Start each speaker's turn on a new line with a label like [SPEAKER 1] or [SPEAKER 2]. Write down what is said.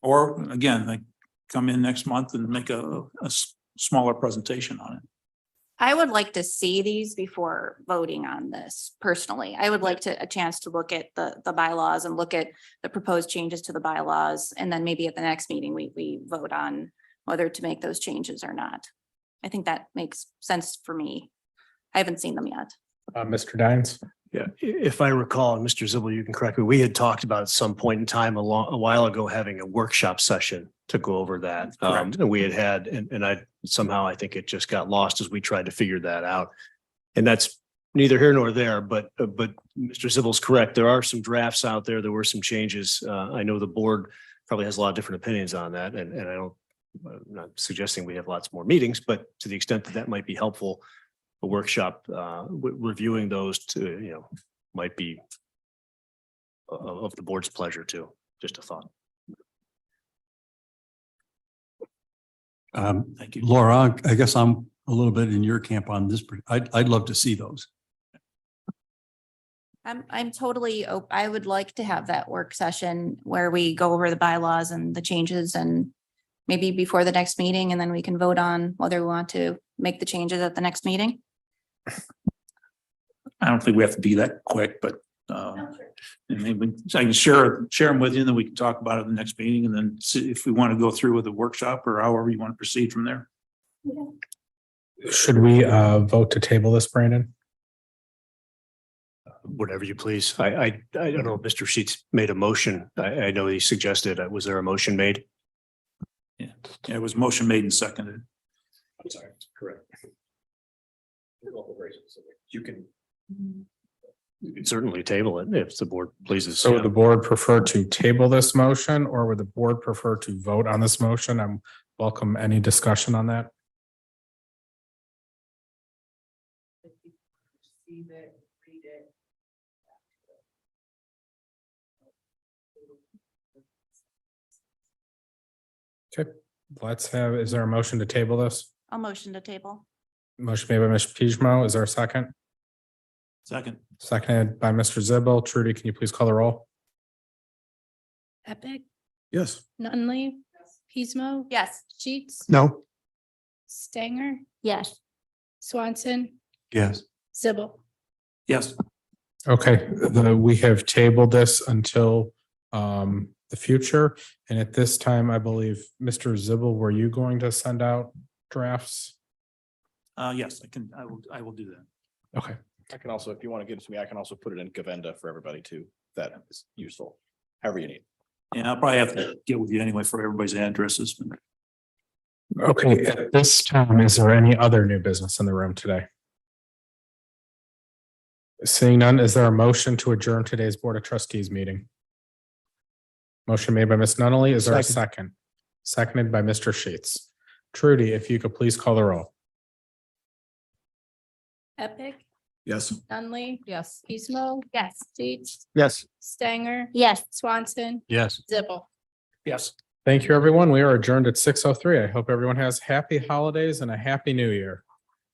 [SPEAKER 1] or again, like come in next month and make a, a s- smaller presentation on it.
[SPEAKER 2] I would like to see these before voting on this personally. I would like to, a chance to look at the, the bylaws and look at the proposed changes to the bylaws. And then maybe at the next meeting, we, we vote on whether to make those changes or not. I think that makes sense for me. I haven't seen them yet.
[SPEAKER 3] Uh, Mr. Dines?
[SPEAKER 4] Yeah, i- if I recall, and Mr. Zibble, you can correct me, we had talked about at some point in time a long, a while ago, having a workshop session to go over that. Um,
[SPEAKER 1] Correct.
[SPEAKER 4] and we had had, and, and I somehow, I think it just got lost as we tried to figure that out. And that's neither here nor there, but, uh, but Mr. Zibble's correct. There are some drafts out there. There were some changes. Uh, I know the board probably has a lot of different opinions on that and, and I don't, I'm not suggesting we have lots more meetings, but to the extent that that might be helpful, a workshop, uh, w- reviewing those to, you know, might be o- o- of the board's pleasure too, just a thought.
[SPEAKER 5] Um,
[SPEAKER 1] Thank you.
[SPEAKER 5] Laura, I guess I'm a little bit in your camp on this. per- I'd, I'd love to see those.
[SPEAKER 2] I'm, I'm totally, op- I would like to have that work session where we go over the bylaws and the changes and maybe before the next meeting, and then we can vote on whether we want to make the changes at the next meeting.
[SPEAKER 1] I don't think we have to be that quick, but uh, and maybe so I can share, share them with you and then we can talk about it in the next meeting and then see if we want to go through with a workshop or however you want to proceed from there.
[SPEAKER 3] Should we uh vote to table this, Brandon?
[SPEAKER 4] Whatever you please. I, I, I don't know, if Mr. Sheets made a motion. I, I know he suggested, uh, was there a motion made?
[SPEAKER 1] Yeah, It was motion made and seconded.
[SPEAKER 4] I'm sorry, correct. You can. You can certainly table it if the board pleases.
[SPEAKER 3] So
[SPEAKER 4] yeah.
[SPEAKER 3] would the board prefer to table this motion or would the board prefer to vote on this motion? I'm welcome any discussion on that.
[SPEAKER 6] Receive it, read it.
[SPEAKER 3] Let's have, is there a motion to table this?
[SPEAKER 2] I'll motion to table.
[SPEAKER 3] Motion made by Mr. Pishmo. Is there a second?
[SPEAKER 1] Second,
[SPEAKER 3] Seconded by Mr. Zibble. Trudy, can you please call the roll?
[SPEAKER 7] Epic,
[SPEAKER 5] Yes.
[SPEAKER 7] Nunley, Pismo.
[SPEAKER 2] Yes.
[SPEAKER 7] Sheets,
[SPEAKER 5] No.
[SPEAKER 7] Stanger,
[SPEAKER 6] Yes.
[SPEAKER 7] Swanson,
[SPEAKER 5] Yes.
[SPEAKER 7] Zibble.
[SPEAKER 1] yes,
[SPEAKER 3] Okay, the, we have tabled this until um the future. And at this time, I believe, Mr. Zibble, were you going to send out drafts?
[SPEAKER 1] uh, yes, I can, I will, I will do that.
[SPEAKER 3] Okay,
[SPEAKER 8] I can also, if you want to get it to me, I can also put it in Govenda for everybody too. That is useful, however you need.
[SPEAKER 1] And I'll probably have to get with you anyway for everybody's addresses. but-
[SPEAKER 3] okay, at this time, is there any other new business in the room today? Seeing none, is there a motion to adjourn today's Board of Trustees meeting? Motion made by Ms. Nunnally. Is there a second? Seconded by Mr. Sheets. Trudy, if you could please call the roll.
[SPEAKER 7] Epic,
[SPEAKER 8] Yes.
[SPEAKER 7] Nunley,
[SPEAKER 6] Yes.
[SPEAKER 7] Pismo. Yes. Sheets,
[SPEAKER 4] Yes.
[SPEAKER 7] Stanger,
[SPEAKER 6] Yes.
[SPEAKER 7] Swanson,
[SPEAKER 5] Yes.
[SPEAKER 7] Zibble.
[SPEAKER 1] Yes.
[SPEAKER 3] Thank you, everyone. We are adjourned at six oh three. I hope everyone has happy holidays and a happy new year.